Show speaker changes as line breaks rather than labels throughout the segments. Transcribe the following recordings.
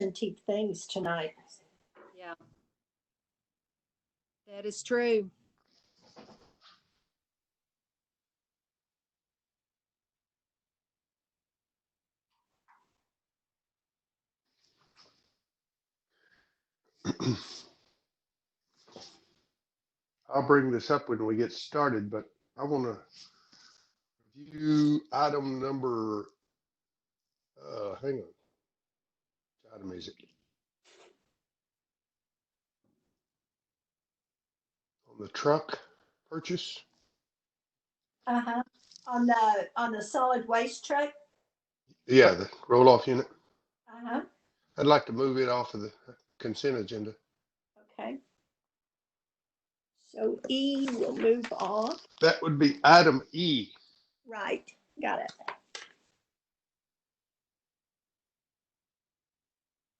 antique things tonight.
Yeah. That is true.
I'll bring this up when we get started, but I want to review item number, uh, hang on. Which item is it? On the truck purchase?
Uh-huh. On the, on the solid waste truck.
Yeah, the roll-off unit.
Uh-huh.
I'd like to move it off of the consent agenda.
Okay. So E will move off.
That would be item E.
Right, got it.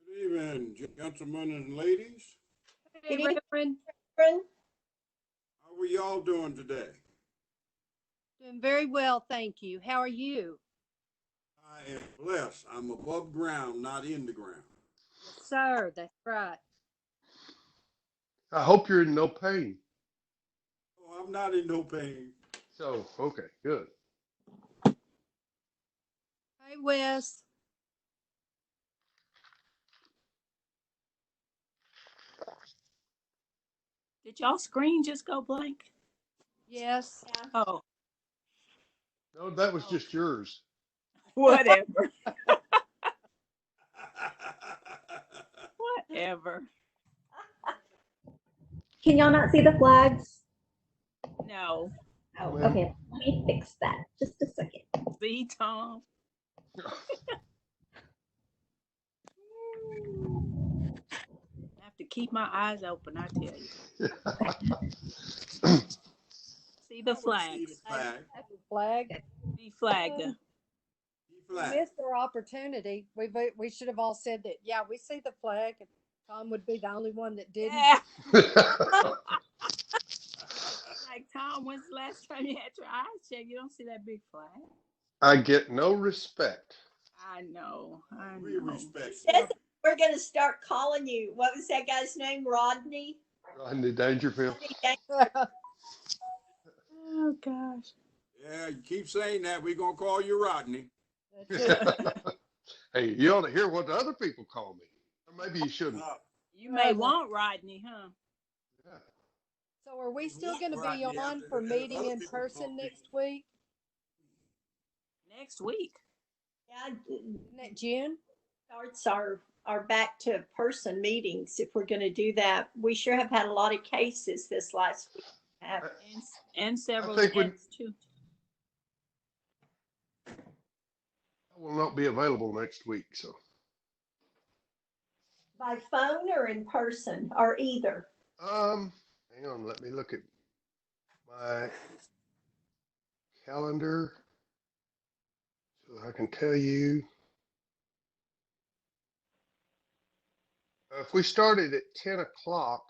Good evening, gentlemen and ladies.
Hey,
Good evening.
Reverend,
Friend,
How are y'all doing today?
doing very well, thank you. How are you?
I am blessed. I'm above ground, not in the ground.
Yes, Sir, that's right.
I hope you're in no pain.
Oh, I'm not in no pain.
So, okay, good.
Hey, Wes.
Did y'all screen just go blank?
Yes.
Oh,
No, that was just yours.
whatever, whatever.
Can y'all not see the flags?
No,
Oh,
Well-
okay. Let me fix that. Just a second.
see, Tom, I have to keep my eyes open, I tell you.
See
See the
the
flags,
flag,
Flag.
see flag.
see
We
flag.
Missed our opportunity. We, we- we should have all said that, yeah, we see the flag. and Tom would be the only one that didn't.
Yeah,
I
like Tom, when's the last time you had your eyes checked? You don't see that big flag?
get no respect.
I know, I
We
know.
respect.
Yes. We're gonna start calling you, what was that guy's name, Rodney?
Rodney Dangerfield.
Rodney Dangerfield.
Oh, gosh.
Yeah, you keep saying that, we gonna call you Rodney.
That's it.
hey, you ought to hear what the other people call me. Or maybe you shouldn't.
Uh,
You may want Rodney, huh?
Yeah.
So are we still gonna be
Rodney,
on
I-
for
I-
meeting
other
in
people
person
don't think-
next week?
Next week.
Yeah, it
Isn't that June?
Starts our, our back to person meetings if we're gonna do that. We sure have had a lot of cases this last week. Have-
And, s- and several
think we-
events too.
I will not be available next week, so
By phone or in person or either?
um hang on, let me look at my calendar so I can tell you. Uh, If we started at ten o'clock,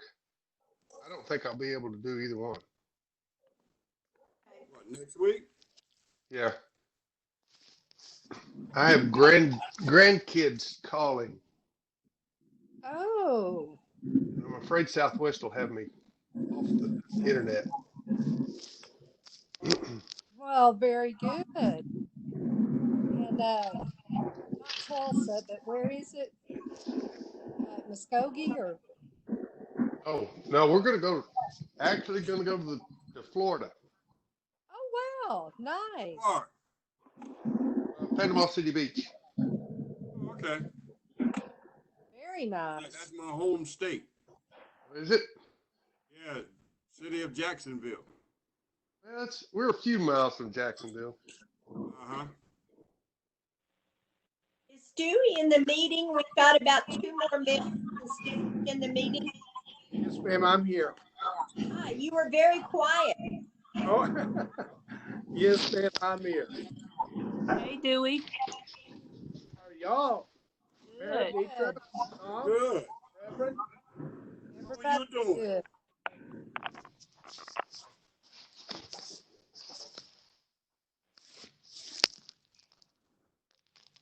I don't think I'll be able to do either one.
what, Next week?
Yeah. I have grand grandkids calling.
Oh,
I'm afraid Southwest will have me off the internet.
well, very good. And, uh, not Tulsa, but where is it? Uh, Muskogee or,
oh no, we're gonna go. Actually, gonna go to, the, to Florida,
oh, wow, nice.
Or,
uh, Panama City Beach.
okay,
Very
Yeah,
nice.
that's my home state.
Is it?
Yeah, city of Jacksonville.
That's we're a few miles from Jacksonville.
Uh-huh.
Is Dewey in the meeting? We've got about two more minutes. Is Dewey in the meeting?
Yes, ma'am, I'm here.
Ah, You were very quiet.
Oh, Yes, ma'am, I'm here.
Hey, Dewey.
How are y'all? Mary
Good.
Deacon, Tom,
Good.
Reverend?
How you
Everybody's
doing?
good.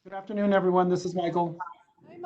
Good afternoon, everyone. This is Michael.